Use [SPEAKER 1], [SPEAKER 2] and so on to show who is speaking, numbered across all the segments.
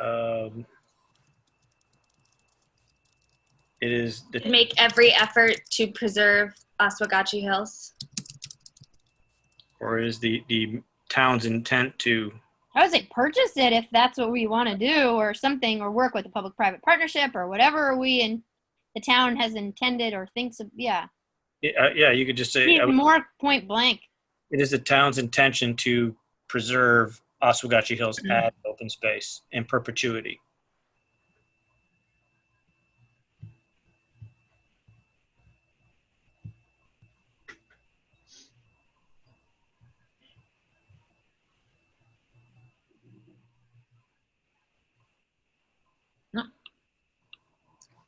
[SPEAKER 1] Um, it is the
[SPEAKER 2] Make every effort to preserve Oswegatchie Hills.
[SPEAKER 1] or is the the town's intent to
[SPEAKER 3] I would say purchase it if that's what we want to do or something, or work with a public-private partnership or whatever we in the town has intended or thinks of, yeah.
[SPEAKER 1] yeah, uh, yeah you could just say
[SPEAKER 3] Need
[SPEAKER 1] I would-
[SPEAKER 3] more point blank.
[SPEAKER 1] it is the town's intention to preserve Oswegatchie Hills as open space in perpetuity.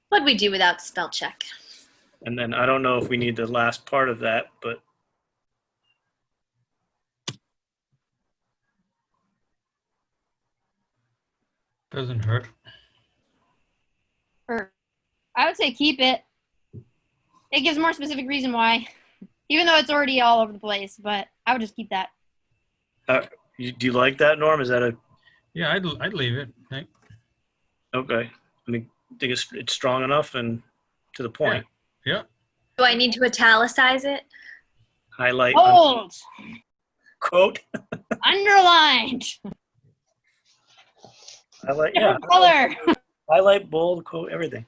[SPEAKER 2] What'd we do without spell check?
[SPEAKER 1] And then I don't know if we need the last part of that, but
[SPEAKER 4] Doesn't hurt.
[SPEAKER 3] Or I would say keep it. It gives more specific reason why, even though it's already all over the place, but I would just keep that.
[SPEAKER 1] you, do you like that, Norm? Is that a
[SPEAKER 4] Yeah, I'd, I'd leave it. I-
[SPEAKER 1] okay? I mean, think it's it's strong enough and to the point.
[SPEAKER 2] Do I need to italicize it?
[SPEAKER 1] Highlight
[SPEAKER 3] Bold,
[SPEAKER 1] quote.
[SPEAKER 3] underlined,
[SPEAKER 1] Highlight yeah.
[SPEAKER 3] different color.
[SPEAKER 1] Highlight bold quote everything.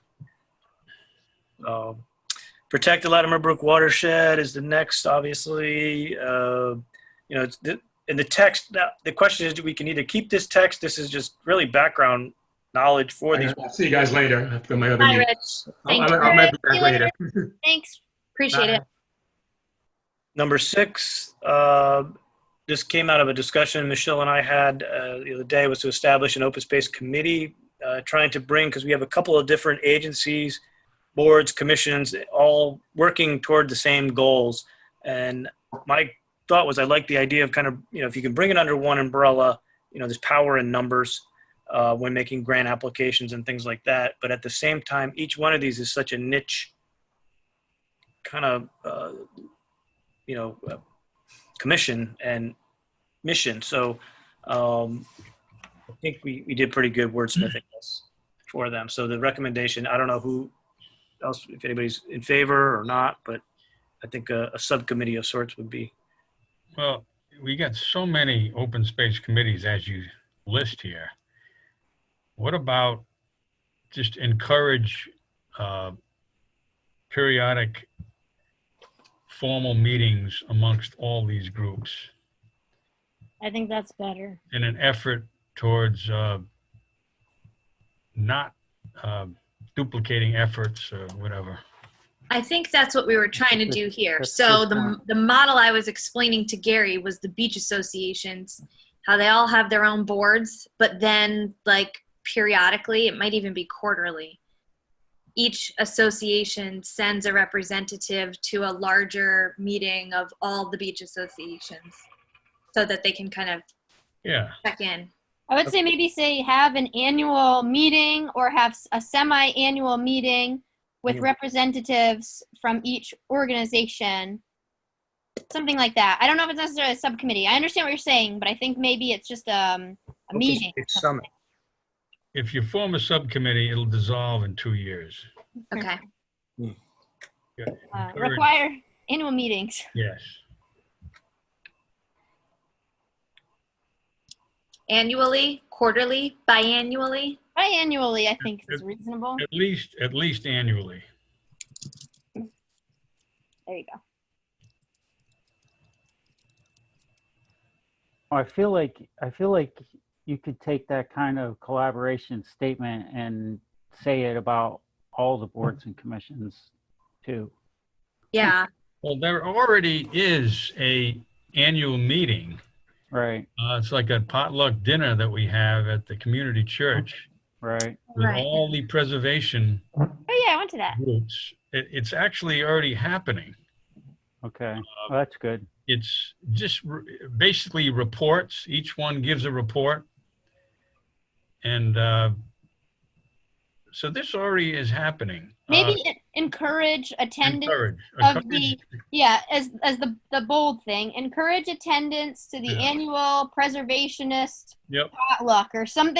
[SPEAKER 1] Um, protect the Latimer Brook watershed is the next, obviously. Uh, you know, it's the, in the text. Now, the question is, do we can either keep this text? This is just really background knowledge for these.
[SPEAKER 5] I'll see you guys later after my other
[SPEAKER 2] Hi,
[SPEAKER 5] meeting.
[SPEAKER 2] Rich.
[SPEAKER 5] I'll, I'll,
[SPEAKER 2] Thank you.
[SPEAKER 5] I'll measure
[SPEAKER 3] See
[SPEAKER 5] back
[SPEAKER 3] you later.
[SPEAKER 5] later.
[SPEAKER 3] Thanks.
[SPEAKER 2] Appreciate it.
[SPEAKER 1] Number six, uh, this came out of a discussion Michelle and I had uh, the other day was to establish an open space committee, uh, trying to bring, because we have a couple of different agencies, boards, commissions, all working toward the same goals. And my thought was I like the idea of kind of, you know, if you can bring it under one umbrella, you know, there's power in numbers uh, when making grant applications and things like that. But at the same time, each one of these is such a niche kind of uh, you know uh, commission and mission so um, i think we, we did pretty good wordsmithing this for them so the recommendation i don't know who else if anybody's in favor or not but i think a, a subcommittee of sorts would be
[SPEAKER 4] Well, we got so many open space committees as you list here. What about just encourage uh, periodic formal meetings amongst all these groups
[SPEAKER 3] I think that's better.
[SPEAKER 4] in an effort towards uh, not uh, duplicating efforts or whatever?
[SPEAKER 2] I think that's what we were trying to do here. So the, the model I was explaining to Gary was the beach associations, how they all have their own boards, but then like periodically, it might even be quarterly. Each association sends a representative to a larger meeting of all the beach associations so that they can kind of
[SPEAKER 4] Yeah,
[SPEAKER 2] check in.
[SPEAKER 3] I would say maybe say have an annual meeting or have s- a semi-annual meeting with
[SPEAKER 4] Mm-hmm.
[SPEAKER 1] Yeah.
[SPEAKER 3] representatives from each organization. Something like that. I don't know if it's necessarily a subcommittee. I understand what you're saying, but I think maybe it's just um, a meeting. Uh,
[SPEAKER 1] It's summit
[SPEAKER 4] if you form a subcommittee, it'll dissolve in two years.
[SPEAKER 2] Okay.
[SPEAKER 3] Uh,
[SPEAKER 4] Encourage-
[SPEAKER 3] require annual meetings.
[SPEAKER 4] Yes.
[SPEAKER 2] Annually, quarterly, biannually.
[SPEAKER 3] Biannually, I think is reasonable.
[SPEAKER 4] At least, at least annually.
[SPEAKER 3] There you go.
[SPEAKER 6] I feel like I feel like you could take that kind of collaboration statement and say it about all the boards and commissions too.
[SPEAKER 2] Yeah.
[SPEAKER 4] Well, there already is a annual meeting.
[SPEAKER 6] Right,
[SPEAKER 4] Uh, it's like a potluck dinner that we have at the community church
[SPEAKER 6] right.
[SPEAKER 4] with
[SPEAKER 2] Right.
[SPEAKER 4] all the preservation
[SPEAKER 3] Oh yeah, I went to
[SPEAKER 4] Uh,
[SPEAKER 3] that.
[SPEAKER 4] groups. It, it's actually already happening.
[SPEAKER 6] Okay, well, that's good.
[SPEAKER 4] It's just re- basically reports. Each one gives a report. And, uh, so this already is happening.
[SPEAKER 3] Maybe en- encourage
[SPEAKER 4] Uh,
[SPEAKER 3] attendance.
[SPEAKER 4] encourage-
[SPEAKER 3] of
[SPEAKER 4] encourage-
[SPEAKER 3] the- Yeah, as as the the bold thing, encourage attendance to the
[SPEAKER 4] Yeah.
[SPEAKER 3] annual preservationist
[SPEAKER 4] Yep.
[SPEAKER 3] potluck or something